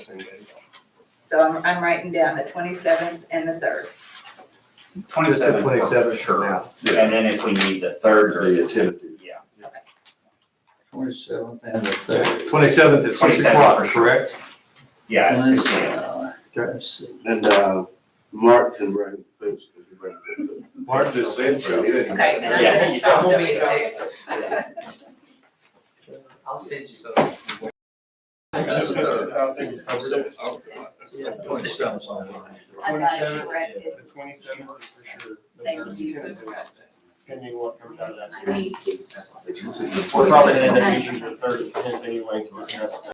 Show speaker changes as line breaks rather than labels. same day.
So I'm, I'm writing down the twenty-seventh and the third.
Just the
Twenty-seven.
twenty-seventh for
Sure.
now.
And then if we need the third or,
Thursday at ten.
yeah,
Twenty-seventh and the third.
Twenty-seventh at six
27th
o'clock,
for sure.
correct?
yeah, it's
Let's,
six AM.
uh, let's see.
And, uh, Mark can bring boots. 'cause he brings boots.
Mark just said so.
He didn't-
Okay, then I'm
Yeah,
gonna
you
stop.
don't-
We'll be in Texas. I'll send you some.
I'll send you some.
I got it corrected.
The twenty-seventh is for sure.
Thank you, Jesus.
Depending what comes out of that.
I need to.
We're probably gonna end up using
the thirty, anyway, to discuss